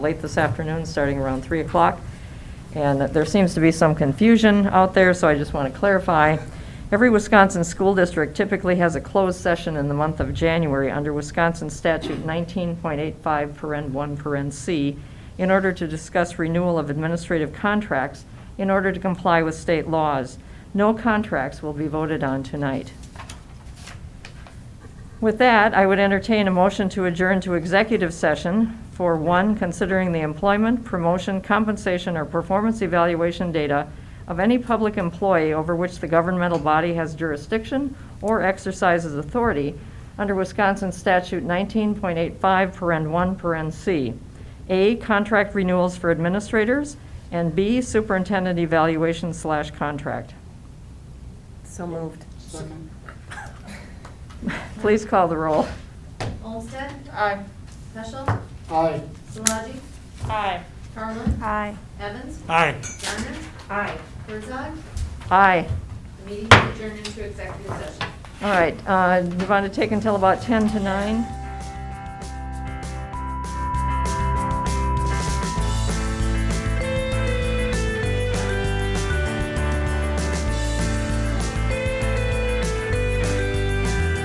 late this afternoon, starting around 3 o'clock. And there seems to be some confusion out there, so I just want to clarify. Every Wisconsin school district typically has a closed session in the month of January under Wisconsin Statute 19.85, paren 1, paren C, in order to discuss renewal of administrative contracts in order to comply with state laws. No contracts will be voted on tonight. With that, I would entertain a motion to adjourn to executive session for, one, considering the employment, promotion, compensation, or performance evaluation data of any public employee over which the governmental body has jurisdiction or exercises authority under Wisconsin Statute 19.85, paren 1, paren C. A, contract renewals for administrators, and B, superintendent evaluation slash contract. So moved. Please call the roll. Olmstead? Aye. Peschel? Aye. Solaji? Aye. Carlin? Aye. Evans? Aye. Garner? Aye. Herzog? Aye. The meeting is adjourned into executive session. All right, uh, you want to take until about 10 to 9?